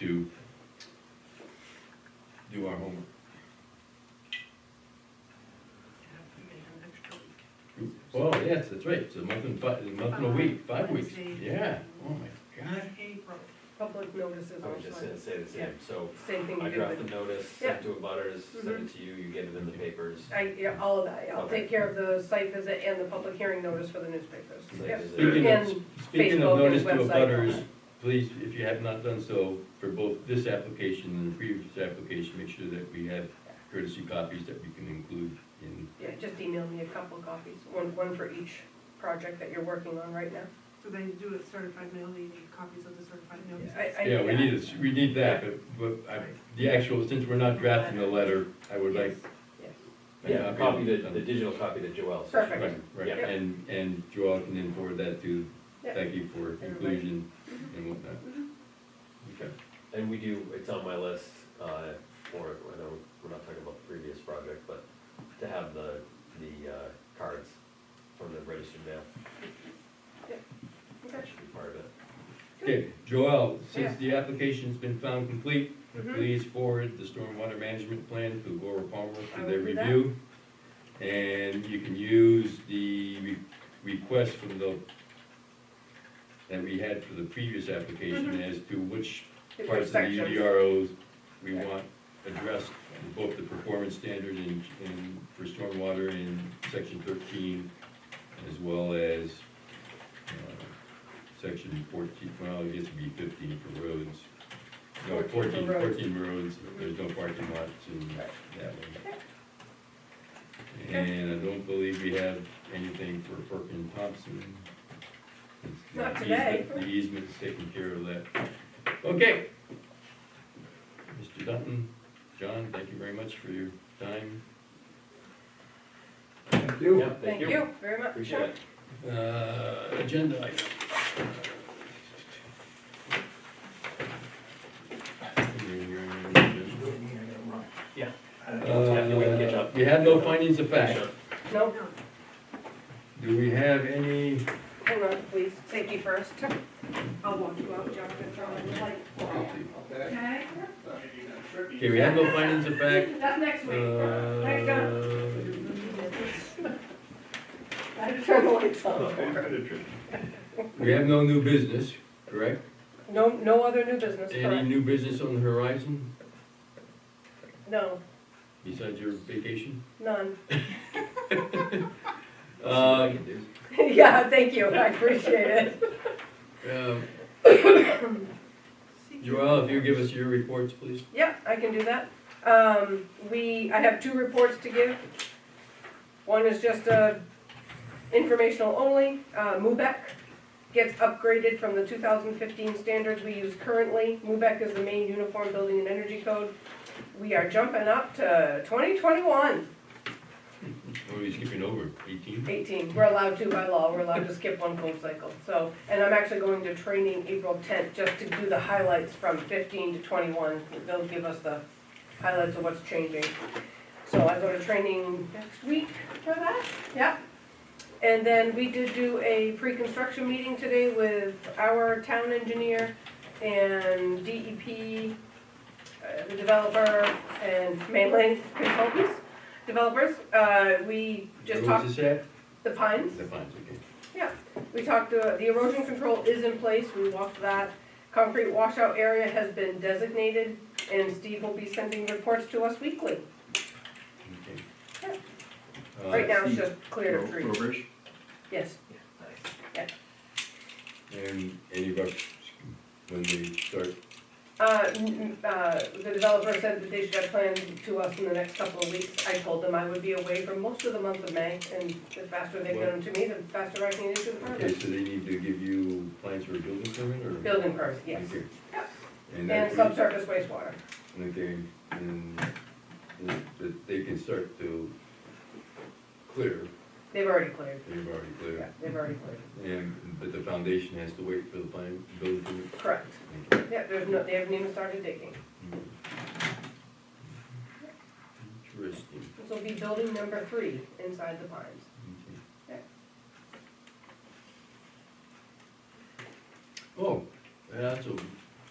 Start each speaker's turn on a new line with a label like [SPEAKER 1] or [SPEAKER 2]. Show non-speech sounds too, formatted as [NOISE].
[SPEAKER 1] to do our homework. Well, yes, that's right, it's a month and five, a month and a week, five weeks,
[SPEAKER 2] Wednesday.
[SPEAKER 1] yeah, oh my god.
[SPEAKER 2] April.
[SPEAKER 3] Public notices
[SPEAKER 4] I was just
[SPEAKER 3] also,
[SPEAKER 4] gonna say the
[SPEAKER 3] Yeah.
[SPEAKER 4] same, so
[SPEAKER 3] same thing
[SPEAKER 4] I
[SPEAKER 3] you did
[SPEAKER 4] draft the
[SPEAKER 3] with,
[SPEAKER 4] notice,
[SPEAKER 3] Yeah.
[SPEAKER 4] send to a butters, send it to you, you get it in the papers.
[SPEAKER 3] I, yeah, all of that, yeah, I'll
[SPEAKER 4] Okay.
[SPEAKER 3] take care of the site visit and the public hearing notice for the newspapers,
[SPEAKER 4] Site
[SPEAKER 3] yeah.
[SPEAKER 4] visit.
[SPEAKER 1] Speaking of,
[SPEAKER 3] And
[SPEAKER 1] speaking of
[SPEAKER 3] Facebook and
[SPEAKER 1] notice to
[SPEAKER 3] website.
[SPEAKER 1] abutters, please, if you have not done so, for both this application and the previous application, make sure that we have courtesy copies that we can include in,
[SPEAKER 3] Yeah, just email me a couple copies, one, one for each project that you're working on right now.
[SPEAKER 2] So they do it certified mail, you need copies of the certified mail.
[SPEAKER 3] I- I-
[SPEAKER 1] yeah, we need, this- we need that, but, but I, the actual, since we're not drafting a letter, I would like
[SPEAKER 3] Yes.
[SPEAKER 1] a
[SPEAKER 4] Yeah,
[SPEAKER 1] copy.
[SPEAKER 4] copy
[SPEAKER 1] of-
[SPEAKER 4] the, the digital copy to Joelle. so she
[SPEAKER 3] Perfect.
[SPEAKER 1] Right,
[SPEAKER 4] can-
[SPEAKER 1] right,
[SPEAKER 4] yeah.
[SPEAKER 1] and, and Joel can then forward that to
[SPEAKER 3] Yeah. Mm-hmm.
[SPEAKER 1] Becky for inclusion and whatnot. Okay.
[SPEAKER 4] And we do, it's on my list, uh, for, I know, we're not talking about the previous project, but to have the, the, uh, cards from the registered mail,
[SPEAKER 3] Okay.
[SPEAKER 4] that should be part of it.
[SPEAKER 1] Okay, Joel, since
[SPEAKER 3] Yeah.
[SPEAKER 1] the application's been found complete,
[SPEAKER 3] Mhm.
[SPEAKER 1] please forward the stormwater management plan to Laura Palmer
[SPEAKER 3] I
[SPEAKER 1] for
[SPEAKER 3] will
[SPEAKER 1] their
[SPEAKER 3] do that.
[SPEAKER 1] review. And you can use the re- request from the, that we had for the previous
[SPEAKER 3] Mm-hmm.
[SPEAKER 1] application as to which
[SPEAKER 3] Different
[SPEAKER 1] parts of the
[SPEAKER 4] E
[SPEAKER 1] E
[SPEAKER 3] sections.
[SPEAKER 1] UDROs we
[SPEAKER 3] Right.
[SPEAKER 1] want addressed, both the performance standard and, and for stormwater in section thirteen, as well as, uh, section fourteen, well, it gets to be fifteen for roads. No,
[SPEAKER 3] 14
[SPEAKER 1] 14
[SPEAKER 3] for roads.
[SPEAKER 1] 14 roads, there's no parking lots in
[SPEAKER 3] Right.
[SPEAKER 1] that one. And I don't believe we have anything for Perkin Thompson. It's the
[SPEAKER 3] Not today.
[SPEAKER 1] easement- The easement's taking care of that. Okay. Mr. Dutton, John, thank you very much for your time.
[SPEAKER 5] Thank you.
[SPEAKER 4] Yeah,
[SPEAKER 3] Thank you very much.
[SPEAKER 4] Appreciate it.
[SPEAKER 1] Uh, agenda item. Uh,
[SPEAKER 4] Yeah. Yeah, we can catch
[SPEAKER 1] Uh,
[SPEAKER 4] up.
[SPEAKER 1] we have no findings of fact.
[SPEAKER 4] Sure.
[SPEAKER 3] No,
[SPEAKER 2] No,
[SPEAKER 1] Do we have any,
[SPEAKER 3] hang on, please, safety first. I'll walk you out, John, and John, and like.
[SPEAKER 6] Okay,
[SPEAKER 1] okay, we have no findings of fact.
[SPEAKER 6] that's next week. Next
[SPEAKER 3] Uh,
[SPEAKER 6] time.
[SPEAKER 1] Uh,
[SPEAKER 3] [LAUGHS] I had to turn the lights on.
[SPEAKER 1] We have no new business, correct?
[SPEAKER 3] No, no other new business,
[SPEAKER 1] Any
[SPEAKER 3] correct?
[SPEAKER 1] new business on the horizon
[SPEAKER 3] No,
[SPEAKER 1] besides your vacation?
[SPEAKER 3] none. [LAUGHS]
[SPEAKER 4] I'll see what I
[SPEAKER 1] Um,
[SPEAKER 4] can do.
[SPEAKER 3] Yeah, thank you, I appreciate it.
[SPEAKER 1] um,
[SPEAKER 2] see.
[SPEAKER 1] Joel, if you give us your reports, please.
[SPEAKER 3] Yeah, I can do that. Um, we, I have two reports to give. One is just, uh, informational only, uh, MUBEC gets upgraded from the two thousand fifteen standards we use currently. MUBEC is the main uniform building and energy code. We are jumping up to twenty twenty-one.
[SPEAKER 1] Or are you Oh, skipping over, eighteen?
[SPEAKER 3] 18, we're allowed to by law, we're allowed to skip one full cycle, so, and I'm actually going to training April 10th just to do the highlights from 15 to 21, they'll give us the highlights of what's changing. So I go to training next week for that, yeah. And then we did do a pre-construction meeting today with our town engineer and DEP, uh, the developer, and mainland consultants, developers, Uh, we just
[SPEAKER 1] Where
[SPEAKER 3] talked
[SPEAKER 1] was this at?
[SPEAKER 3] the pines,
[SPEAKER 1] The pines, okay.
[SPEAKER 3] we talked, uh, the erosion control is in place, we walked that. Concrete washout area has been designated, and Steve will be sending reports to us weekly.
[SPEAKER 1] Okay. Uh,
[SPEAKER 3] Right now, it's
[SPEAKER 5] Steve.
[SPEAKER 3] just cleared of trees.
[SPEAKER 5] Rubbish.
[SPEAKER 3] Yes,
[SPEAKER 1] And any rush when they start?
[SPEAKER 3] uh, n- n- uh, the developer said that they should have plans to us in the next couple of weeks. I told them I would be away for most of the month of May, and the faster they get them to me, the faster I can issue the
[SPEAKER 1] Okay,
[SPEAKER 3] permit.
[SPEAKER 1] so they need to give you plans for a building permit or?
[SPEAKER 3] Building permits, yes,
[SPEAKER 1] Okay.
[SPEAKER 3] Yep.
[SPEAKER 1] And
[SPEAKER 3] and
[SPEAKER 1] that's what-
[SPEAKER 3] subsurface wastewater.
[SPEAKER 1] Okay, and that they can start to clear,
[SPEAKER 3] They've already cleared,
[SPEAKER 1] they've already
[SPEAKER 3] yeah,
[SPEAKER 1] cleared.
[SPEAKER 3] they've already cleared,
[SPEAKER 1] And, but the foundation has to wait for the plan, building permit?
[SPEAKER 3] correct.
[SPEAKER 1] Okay.
[SPEAKER 3] Yeah, there's no, they haven't even started digging.
[SPEAKER 1] Interesting.
[SPEAKER 3] This will be building number three inside the pines.
[SPEAKER 1] Okay. Oh, that's a